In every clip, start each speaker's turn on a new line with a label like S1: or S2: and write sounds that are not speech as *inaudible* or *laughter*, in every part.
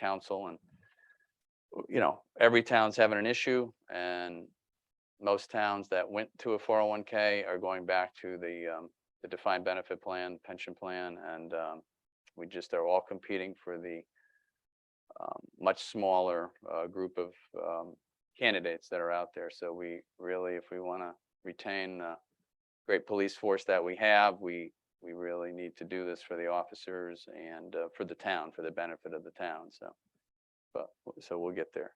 S1: council and you know, every town's having an issue and most towns that went to a four oh one K are going back to the um, the defined benefit plan, pension plan, and um, we just are all competing for the um, much smaller uh, group of um, candidates that are out there. So we really, if we want to retain the great police force that we have, we, we really need to do this for the officers and uh, for the town, for the benefit of the town. So, but, w- so we'll get there.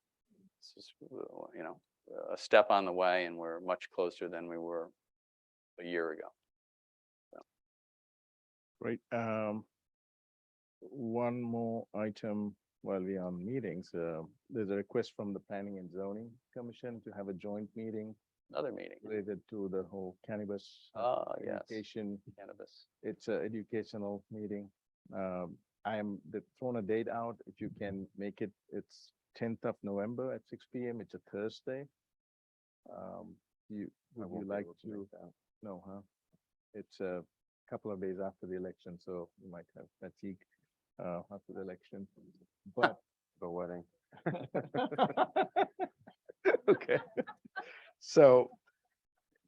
S1: This is, uh, you know, a step on the way and we're much closer than we were a year ago.
S2: Great. Um, one more item while we're on meetings. Uh, there's a request from the Planning and Zoning Commission to have a joint meeting
S1: Another meeting.
S2: related to the whole cannabis uh,
S1: Ah, yes,
S2: education.
S1: cannabis.
S2: It's an educational meeting. Um, I am, they've thrown a date out. If you can make it, it's tenth of November at six P M. It's a Thursday. Um, you, would you like to? No, huh? It's a couple of days after the election, so you might have fatigue uh, after the election, but. The wedding. *laughs* Okay, so uh,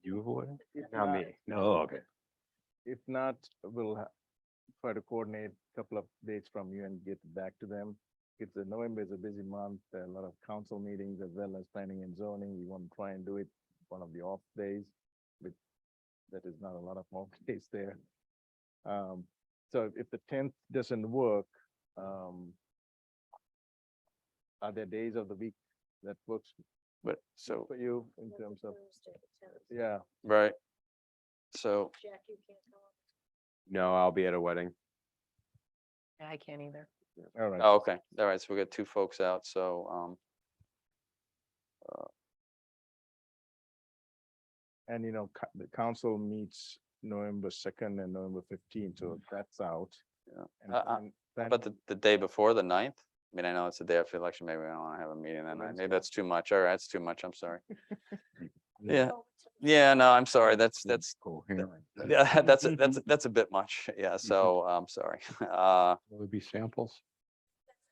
S3: You avoiding?
S2: if
S3: Not
S2: not-
S3: me. No, okay.
S2: if not, we'll ha- try to coordinate a couple of dates from you and get back to them. It's a November is a busy month, there are a lot of council meetings as well as planning and zoning. We want to try and do it one of the off days. But that is not a lot of *laughs* off days there. Um, so if the tenth doesn't work, um, are there days of the week that works
S1: But so,
S2: for you in terms of, yeah,
S1: right. So
S4: Jack, you can't go on.
S3: No, I'll be at a wedding.
S5: Yeah, I can't either.
S2: all right.
S1: Oh, okay, all right, so we got two folks out, so, um,
S2: And you know, co- the council meets November second and November fifteenth, so that's out.
S1: Mm. Yeah.
S2: And
S1: Uh, uh,
S2: then
S1: how
S2: planning-
S1: about the, the day before, the ninth? I mean, I know it's the day after the election, maybe I don't wanna have a meeting that night,
S2: Wednesday.
S1: maybe that's too much, all right, that's too much, I'm sorry. Yeah,
S4: Oh, it's a-
S1: yeah, no, I'm sorry, that's,
S3: Mm,
S1: that's,
S3: Cool.
S1: yeah, *laughs*
S3: *laughs*
S1: that's, a- that's, a- that's a bit much, *laughs* yeah, so, I'm sorry, *laughs* uh,
S3: Will it be samples?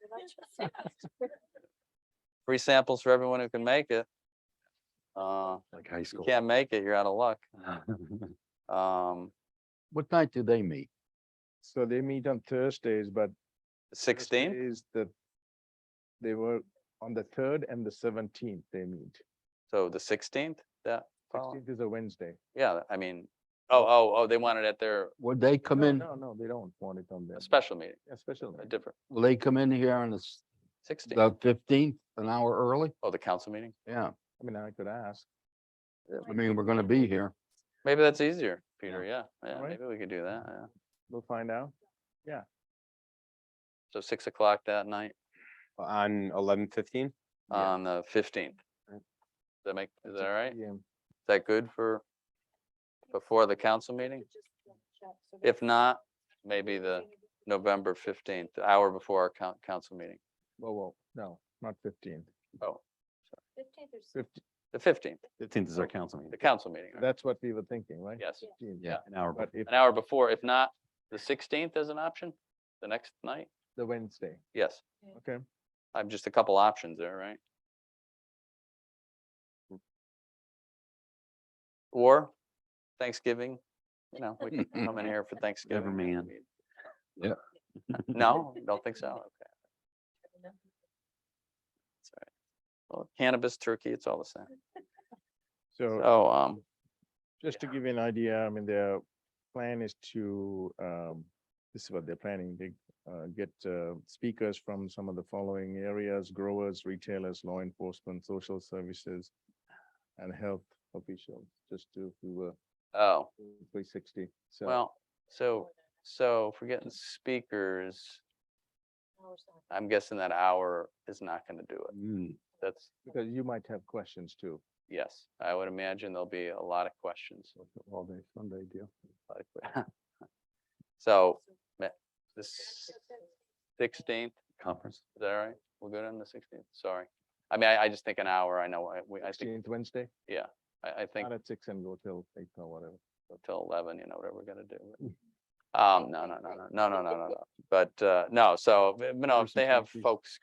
S4: that's what I just said.
S5: *laughs*
S1: free samples for everyone who can make it. Uh,
S3: Like
S1: if
S3: high
S1: you
S3: school.
S1: can't make it, you're out of luck, um,
S6: *laughs* What night do they meet?
S2: So they meet on Thursdays, but. Thursday
S1: sixteen,
S2: Is the, they were on the third and the seventeenth they meet.
S1: so the sixteenth, that, follow-
S2: Sixteenth is a Wednesday.
S1: yeah, I mean, oh, oh, oh, they wanted at their
S6: Would they come
S2: No,
S6: in,
S2: No, no, they don't want it on there.
S1: a special meeting,
S2: A special.
S1: a
S2: meeting.
S1: different
S6: will they come in here on the s-
S1: sixteen.
S6: the fifteenth, an hour early?
S1: Oh, the council meeting?
S6: Yeah,
S2: I mean, I could ask.
S6: I mean, we're gonna be here.
S1: Maybe that's easier, Peter. Yeah, yeah,
S2: Right.
S1: maybe we could do that. Yeah.
S2: We'll find out.
S1: So six o'clock that night
S3: On eleven fifteen?
S6: Yeah.
S1: on the fifteenth.
S3: Right.
S1: That make, is that all
S2: 6
S1: right? Is
S2: p.m.
S1: that good for before the council meeting? If not, maybe the November fifteenth, the hour before our coun- council meeting.
S2: Whoa, whoa, no, not fifteenth.
S4: Fifteenth or sixteenth,
S2: Fifteen,
S1: The fifteenth,
S3: Fifteenth is our council meeting.
S1: the council meeting. right?
S2: that's what we were thinking, right?
S1: Yes,
S2: 15th.
S6: Yeah.
S3: An hour.
S2: But
S3: before.
S2: if
S1: an hour before. If not, the sixteenth as an option, the next night?
S2: the Wednesday,
S1: Yes,
S2: okay?
S1: I'm just a couple options there, right? Or Thanksgiving, you know, we can come in
S4: *laughs*
S1: here for Thanksgiving. I
S3: man.
S1: mean,
S6: Yeah.
S1: No, don't think so. Okay, it's all right. Well, cannabis, turkey, it's all the same.
S2: So
S1: So, um,
S2: Just to give you an idea, I mean, their plan is to, um, this is what they're planning, they, uh, get, uh, speakers from some of the following areas, growers, retailers, law enforcement, social services, and health officials, just to, we were
S1: oh,
S2: three sixty, so.
S1: well, so, so if we're getting speakers, I'm guessing that hour is not gonna do it.
S3: Mm,
S1: That's,
S2: Because you might have questions too.
S1: yes, I would imagine there'll be a lot of questions. *laughs*
S2: All day Sunday deal.
S1: like, So, ma- the sixteenth,
S3: Conference.
S1: is that all right? We're good on the sixteenth, sorry. I mean, I, I just think an hour, I know, I, we, I think,
S2: Sixteenth Wednesday,
S1: I, I think
S2: not at six and go till eight or whatever.
S1: till eleven, you know, whatever we're gonna do. but- Um, no, no, no, no, no, no, no, no, no, but, uh, no, so, but no, if they have
S2: Conversation.
S1: folks